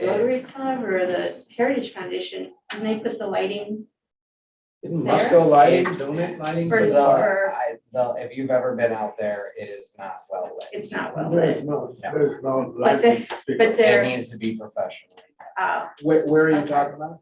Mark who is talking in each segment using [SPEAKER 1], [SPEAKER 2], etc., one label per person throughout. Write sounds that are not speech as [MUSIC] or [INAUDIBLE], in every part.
[SPEAKER 1] the Rotary Club or the Heritage Foundation, and they put the lighting
[SPEAKER 2] Didn't
[SPEAKER 1] There?
[SPEAKER 2] Musco Lighting donate lighting?
[SPEAKER 1] for,
[SPEAKER 2] to
[SPEAKER 3] the-
[SPEAKER 1] for,
[SPEAKER 3] uh, I, the, if you've ever been out there, it is not well lit.
[SPEAKER 1] it's not well lit.
[SPEAKER 4] There's no,
[SPEAKER 3] Yeah.
[SPEAKER 4] there's no.
[SPEAKER 1] But they- but
[SPEAKER 3] It
[SPEAKER 1] they're,
[SPEAKER 3] needs to be professional.
[SPEAKER 1] uh,
[SPEAKER 2] Where, where are you talking about?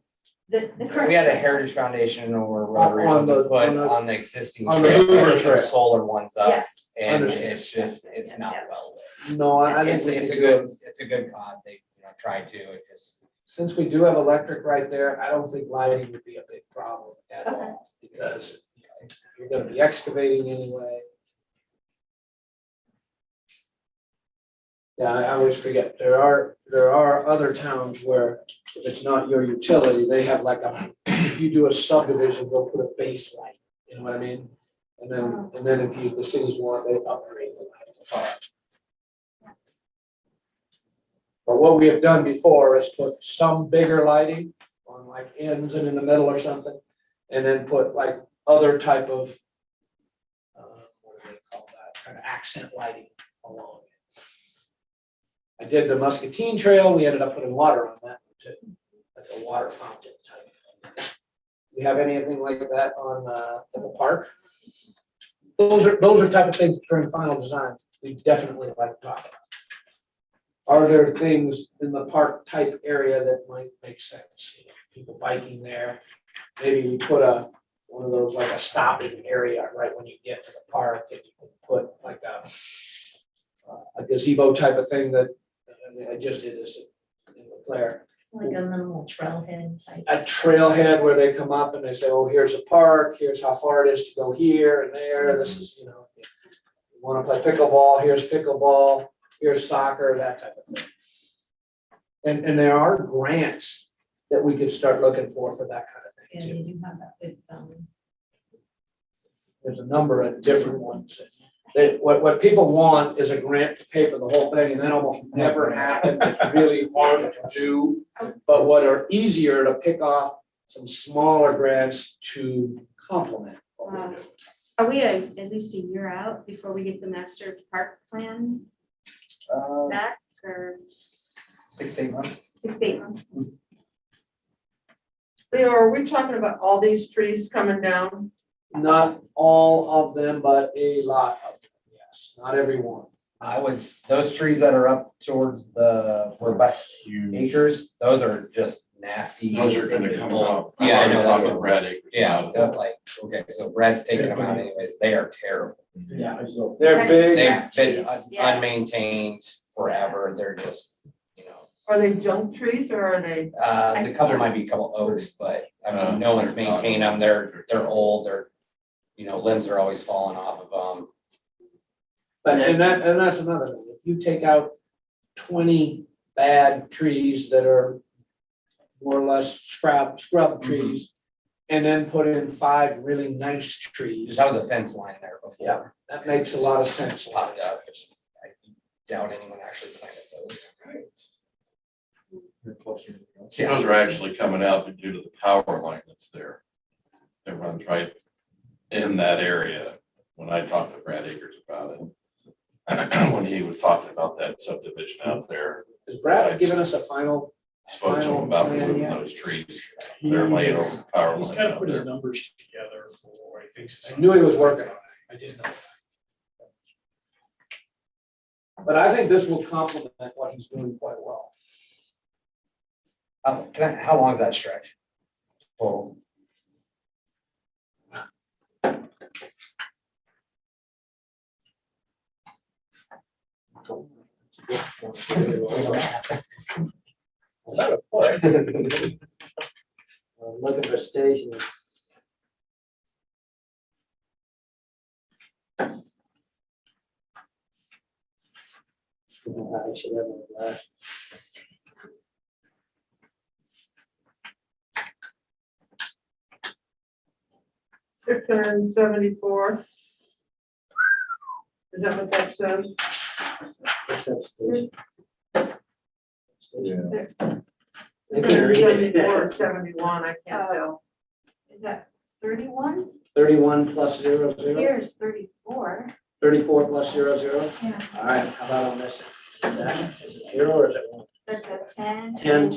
[SPEAKER 1] the, the current.
[SPEAKER 3] We had a Heritage Foundation or Rotary or
[SPEAKER 2] On the-
[SPEAKER 3] something put
[SPEAKER 2] on the-
[SPEAKER 3] on the existing
[SPEAKER 2] on the
[SPEAKER 3] trail,
[SPEAKER 2] Hoover
[SPEAKER 3] there's some
[SPEAKER 2] Trail.
[SPEAKER 3] solar ones up.
[SPEAKER 1] Yes.
[SPEAKER 3] And
[SPEAKER 2] Understood.
[SPEAKER 3] it's just,
[SPEAKER 1] Yes,
[SPEAKER 3] it's
[SPEAKER 1] yes,
[SPEAKER 3] not
[SPEAKER 1] yes.
[SPEAKER 3] well
[SPEAKER 2] No, I, I
[SPEAKER 3] lit.
[SPEAKER 2] think.
[SPEAKER 3] It's,
[SPEAKER 2] we
[SPEAKER 3] it's a
[SPEAKER 2] need to-
[SPEAKER 3] good, it's a good cod, they, you know, try to, it just.
[SPEAKER 2] Since we do have electric right there, I don't think lighting would be a big problem at
[SPEAKER 1] Okay.
[SPEAKER 2] all, because you're gonna be excavating anyway. Yeah, I I always forget, there are, there are other towns where if it's not your utility, they have like a, if you do a subdivision, they'll put a base light, you know what I mean? And then, and then if you, the cities want, they upgrade the light. But what we have done before is put some bigger lighting on like ends and in the middle or something, and then put like other type of uh, what do they call that, kind of accent lighting along. I did the Muscatine Trail, we ended up putting water on that too, like a water fountain type. Do you have anything like that on, uh, in the park? Those are, those are type of things during final design, we definitely like to talk about. Are there things in the park type area that might make sense? You know, People biking there, maybe we put a, one of those like a stopping area right when you get to the park, if you can put like a uh, a gazebo type of thing that, I mean, I just did this in the Claire,
[SPEAKER 5] Like a minimal trailhead type.
[SPEAKER 2] a trailhead where they come up and they say, oh, here's a park, here's how far it is to go here and there, this is, you know. if you Wanna play pickleball, here's pickleball, here's soccer, that type of thing. And, and there are grants that we could start looking for, for that kind of
[SPEAKER 5] Yeah,
[SPEAKER 2] thing too.
[SPEAKER 5] they do have that with, um,
[SPEAKER 2] There's a number of different ones. They, what, what people want is a grant to pay for the whole thing and that almost never happens. It's really hard to do. But what are easier to pick off some smaller grants to complement what we do.
[SPEAKER 1] Um, Are we a- at least a year out before we get the master park plan
[SPEAKER 3] Uh,
[SPEAKER 1] back or
[SPEAKER 3] six, to eight months.
[SPEAKER 1] six, to eight months?
[SPEAKER 6] Leo, are we talking about all these trees coming down?
[SPEAKER 2] Not all of them, but a lot of them, yes, not every one.
[SPEAKER 3] I would, s- those trees that are up towards the, where by acres, those are just nasty.
[SPEAKER 7] Those are gonna come up.
[SPEAKER 3] Yeah, I know, that's what-
[SPEAKER 7] Red.
[SPEAKER 3] Yeah, they're like, okay, so Brad's taking them out anyways, they are terrible.
[SPEAKER 2] Yeah. They're
[SPEAKER 1] That's-
[SPEAKER 2] big,
[SPEAKER 3] They've been un-
[SPEAKER 1] Yeah.
[SPEAKER 3] unmaintained forever, they're just, you know,
[SPEAKER 6] Are they junk trees or are they?
[SPEAKER 3] uh, the couple might be a couple oaks, but I
[SPEAKER 7] Uh,
[SPEAKER 3] mean, no one's
[SPEAKER 7] they're not-
[SPEAKER 3] maintained them, they're, they're old, they're, you know, limbs are always falling off of them.
[SPEAKER 2] but, and that, and that's another thing. If you take out twenty bad trees that are more or less scrub, scrub
[SPEAKER 7] Mm-hmm.
[SPEAKER 2] trees, and then put in five really nice trees,
[SPEAKER 3] That was a fence line there before,
[SPEAKER 2] that makes a lot of sense.
[SPEAKER 3] popped up, which I doubt anyone actually planted those. Yeah,
[SPEAKER 7] Those are actually coming out due to the power line that's there. It runs right in that area. When I talked to Brad Akers about it. [CLEARS THROAT] When he was talking about that subdivision out there,
[SPEAKER 2] Has Brad given us a final?
[SPEAKER 7] spoke to him about removing those trees. They're laying over the power
[SPEAKER 8] He's
[SPEAKER 7] line
[SPEAKER 8] kind of
[SPEAKER 7] out
[SPEAKER 8] put his
[SPEAKER 7] there.
[SPEAKER 8] numbers together for what he thinks. is-
[SPEAKER 2] I knew he was working on it. I didn't know. But I think this will complement what he's doing quite well.
[SPEAKER 3] Um, can I, how long is that stretch? Total,
[SPEAKER 2] I'm Looking for station. I should have my glass.
[SPEAKER 6] Six hundred and seventy-four. Is that what that says?
[SPEAKER 2] Station. Station.
[SPEAKER 6] Six hundred and seventy-four or seventy-one, I can't
[SPEAKER 5] Uh,
[SPEAKER 6] tell.
[SPEAKER 1] Is that thirty-one?
[SPEAKER 2] Thirty-one plus zero zero,
[SPEAKER 1] Here's thirty-four.
[SPEAKER 2] thirty-four plus zero zero.
[SPEAKER 1] Yeah.
[SPEAKER 2] All right, how about on this? Is that- is it Zero or is it one? There's a ten.
[SPEAKER 1] Ten